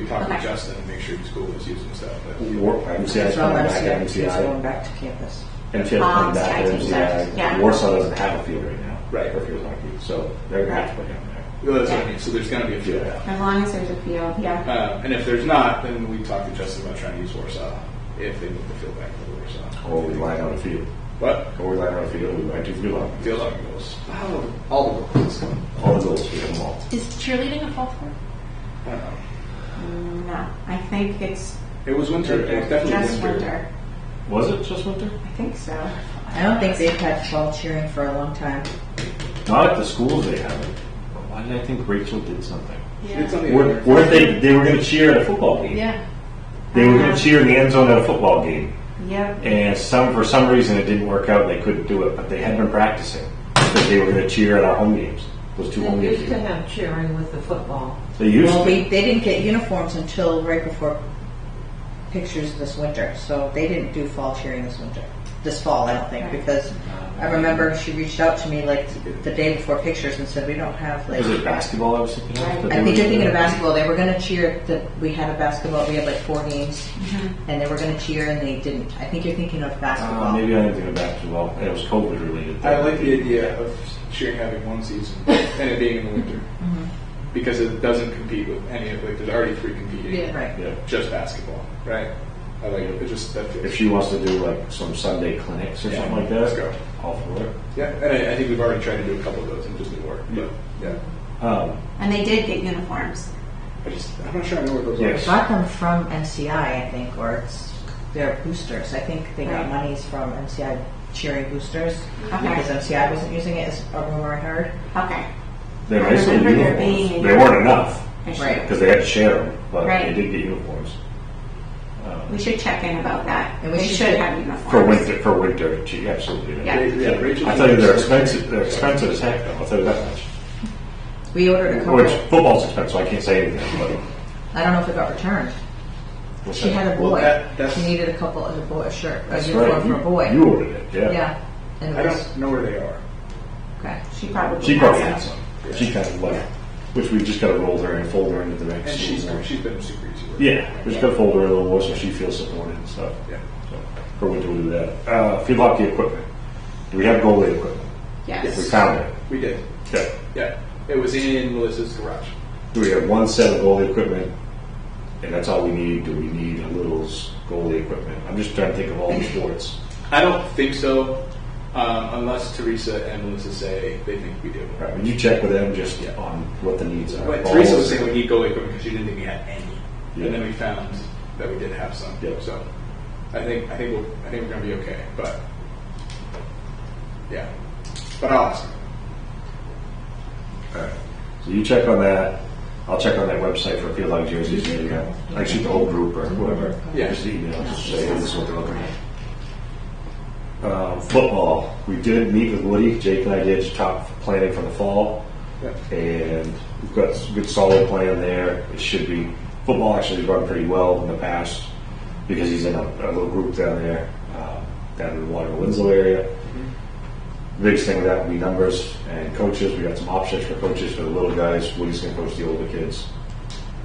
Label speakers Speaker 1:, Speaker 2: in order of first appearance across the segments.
Speaker 1: talk to
Speaker 2: Okay.
Speaker 1: Justin and make sure the school is using stuff. but-
Speaker 3: Warsaw, MCI's
Speaker 4: It's all
Speaker 3: coming back,
Speaker 4: MCI, kids are going
Speaker 3: MCI.
Speaker 4: back to campus.
Speaker 3: MCI's coming back,
Speaker 2: Um, MCI, yeah.
Speaker 3: MCI. Warsaw doesn't have a field right now.
Speaker 1: Right.
Speaker 3: Or fields like you, so they're gonna have to play down there.
Speaker 1: Well, that's what I mean, so there's gonna be a few.
Speaker 3: Yeah.
Speaker 2: As long as there's a field, yeah.
Speaker 1: Uh, and if there's not, then we talk to Justin about trying to use Warsaw, if they move the field back to Warsaw.
Speaker 3: Or we line on a field,
Speaker 1: But,
Speaker 3: or we line on a field, we might do field hockey.
Speaker 1: field hockey goals, Wow, all the goals,
Speaker 3: All the goals, we have them all.
Speaker 5: Is cheerleading a fall sport?
Speaker 1: I don't know.
Speaker 2: No, I think it's
Speaker 1: It was winter, it was definitely
Speaker 2: just
Speaker 1: winter.
Speaker 2: winter.
Speaker 3: Was it just winter?
Speaker 2: I think so.
Speaker 4: I don't think they've had fall cheering for a long time.
Speaker 3: Not at the schools they haven't. Why did I think Rachel did something?
Speaker 1: It's on the
Speaker 3: Or,
Speaker 1: other.
Speaker 3: or if they, they were gonna cheer at a football game.
Speaker 5: Yeah.
Speaker 3: They were gonna cheer in the end zone at a football game.
Speaker 2: Yep.
Speaker 3: And some, for some reason, it didn't work out. They couldn't do it, but they had been practicing. But they were going to cheer at our home games. Those two home
Speaker 6: They
Speaker 3: games.
Speaker 6: used to have cheering with the football.
Speaker 3: They used
Speaker 4: Well,
Speaker 3: to.
Speaker 4: we, they didn't get uniforms until right before pictures this winter, so they didn't do fall cheering this winter, this fall, I don't think, because I remember she reached out to me like the day before pictures and said, we don't have like.
Speaker 3: Was it basketball I was thinking of? That they
Speaker 4: I think
Speaker 3: were-
Speaker 4: you're thinking of basketball. They were going to cheer that we had a basketball. We had like four games,
Speaker 5: Mm-hmm.
Speaker 4: and they were going to cheer, and they didn't. I think you're thinking of
Speaker 3: Uh,
Speaker 4: basketball.
Speaker 3: maybe I didn't think of basketball. And it was COVID related.
Speaker 1: I like the idea of cheering having one season and it being in the winter.
Speaker 2: Mm-hmm.
Speaker 1: Because it doesn't compete with any of, like, there's already three competing.
Speaker 5: Yeah.
Speaker 4: Right.
Speaker 3: Yeah.
Speaker 1: Just basketball, right? I like it, it just, that feels.
Speaker 3: If she wants to do like some Sunday clinics or
Speaker 1: Yeah.
Speaker 3: something like that,
Speaker 1: Let's go.
Speaker 3: all for it.
Speaker 1: Yeah, and I, I think we've already tried to do a couple of those and it just didn't work, but, yeah.
Speaker 3: Um,
Speaker 2: And they did get uniforms.
Speaker 1: I just, I'm not sure I know where those
Speaker 3: Yes.
Speaker 1: are.
Speaker 4: Got them from MCI, I think, or it's their boosters. I think they got
Speaker 2: Right.
Speaker 4: monies from MCI cheering boosters
Speaker 2: Okay.
Speaker 4: because MCI wasn't using it. Is a rumor I heard.
Speaker 2: Okay.
Speaker 3: they're
Speaker 2: I
Speaker 3: nice little
Speaker 2: remember there
Speaker 3: uniforms.
Speaker 2: being-
Speaker 3: They weren't enough
Speaker 2: I should-
Speaker 4: Right.
Speaker 3: because they had to share them, but
Speaker 2: Right.
Speaker 3: they did get uniforms
Speaker 2: We should check in about that.
Speaker 4: And we
Speaker 2: They
Speaker 4: should-
Speaker 2: should have uniforms.
Speaker 3: for winter. For winter, she absolutely. did.
Speaker 2: Yeah.
Speaker 1: They- yeah, Rachel-
Speaker 3: I tell you, they're expensive. They're expensive as heck, though. I'll tell you that much.
Speaker 4: We ordered a couple.
Speaker 3: Which football's expensive, so I can't say anything. But
Speaker 4: I don't know if it got returned.
Speaker 3: what's
Speaker 4: She
Speaker 3: that?
Speaker 4: had a
Speaker 1: Well,
Speaker 4: boy.
Speaker 1: that- that's-
Speaker 4: she needed a couple of a boy a shirt,
Speaker 3: That's
Speaker 4: a uniform
Speaker 3: right.
Speaker 4: for
Speaker 3: You,
Speaker 4: a boy.
Speaker 3: you ordered it, yeah.
Speaker 4: yeah. And
Speaker 1: I
Speaker 4: it was,
Speaker 1: don't know where they are.
Speaker 4: okay.
Speaker 2: She probably.
Speaker 3: She probably had
Speaker 2: has
Speaker 3: some.
Speaker 2: them.
Speaker 3: She kind of like, which we just got to roll her and fold her into the next.
Speaker 1: And she's,
Speaker 3: season.
Speaker 1: she's been super easy. with it.
Speaker 3: yeah, we just got to fold her a little more so she feels supported and stuff.
Speaker 1: Yeah.
Speaker 3: So her winter will do that. Uh, field hockey equipment. Do we have goalie equipment? We
Speaker 2: Yes.
Speaker 3: found it.
Speaker 1: We did,
Speaker 3: Yeah.
Speaker 1: yeah. It was in Melissa's garage.
Speaker 3: Do we have one set of goalie equipment? And that's all we need. Do we need a little s- goalie equipment? I'm just trying to think of all the sports.
Speaker 1: I don't think so, um, unless Teresa and Melissa say they think we do.
Speaker 3: Right, would you check with them just
Speaker 1: Yeah.
Speaker 3: on what the needs are?
Speaker 1: But
Speaker 3: Balls-
Speaker 1: Teresa was saying we need goalie equipment because she didn't think we had any,
Speaker 3: Yeah.
Speaker 1: and then we found that we did have some.
Speaker 3: Yeah.
Speaker 1: So I think I think we'll, I think we're gonna be okay. But yeah, but I'll ask.
Speaker 3: Alright. So you check on that. I'll check on that website for field hockey jerseys. and, uh, I shoot the whole group or whoever.
Speaker 1: Yeah.
Speaker 3: Just email, just say, hey, this is what they're looking at. Um, football. We did meet with Woody. Jake and I did top planning for the fall.
Speaker 1: Yeah.
Speaker 3: And we've got a good solid plan there. It should be, football actually run pretty well in the past because he's in a, a little group down there, um, down in the Water Winslow area. Biggest thing with that would be numbers and coaches. We got some options for coaches for the little guys. Woody's going to coach the older kids.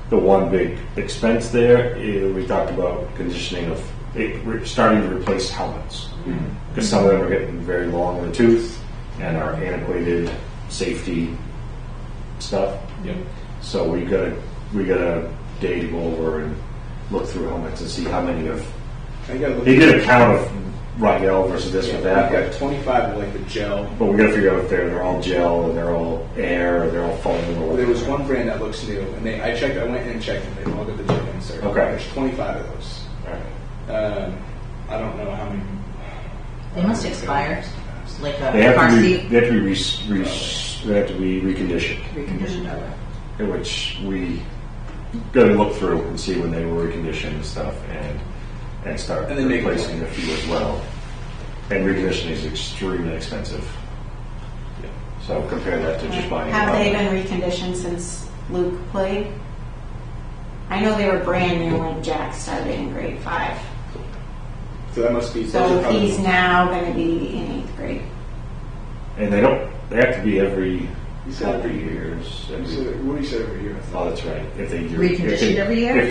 Speaker 3: The one big expense there is we talked about conditioning of it, we're starting to replace helmets because some of them are getting very long in the tooth and are antiquated safety stuff.
Speaker 1: Yeah.
Speaker 3: So we got a we got a day to go over and look through helmets and see how many of
Speaker 1: I got.
Speaker 3: they did a count of Rydell versus this or that.
Speaker 1: I've got 25 of like the gel.
Speaker 3: But we gotta figure out if they're, they're all gel, and they're all air, or they're all foam, or
Speaker 1: There
Speaker 3: whatever.
Speaker 1: was one brand that looks new, and they I checked. I went in and checked, and they all got the gel insert.
Speaker 3: Okay.
Speaker 1: There's 25 of those.
Speaker 3: Alright.
Speaker 1: Um, I don't know how many.
Speaker 4: They must expire. Like a
Speaker 3: They have
Speaker 4: car
Speaker 3: to be,
Speaker 4: seat.
Speaker 3: they have to be, res- res- they have to be reconditioned,
Speaker 4: Reconditioned over.
Speaker 3: in which we gotta look through and see when they were reconditioned and stuff, and, and start
Speaker 1: And then make a
Speaker 3: replacing a
Speaker 1: plan.
Speaker 3: few as well. And reconditioning is extremely expensive. So compare that to just buying.
Speaker 2: Have
Speaker 3: one.
Speaker 2: they been reconditioned since Luke played? I know they were brand new when Jack started in grade five.
Speaker 1: So that must be. those
Speaker 2: So
Speaker 1: are probably-
Speaker 2: he's now going to be in eighth grade.
Speaker 3: And they don't, they have to be every,
Speaker 1: You said
Speaker 3: every
Speaker 1: every year.
Speaker 3: years,
Speaker 1: You
Speaker 3: every,
Speaker 1: said- What do you say over here? I thought.
Speaker 3: oh, that's right, if they. do- if
Speaker 4: Reconditioned
Speaker 3: they-
Speaker 4: every year?
Speaker 3: if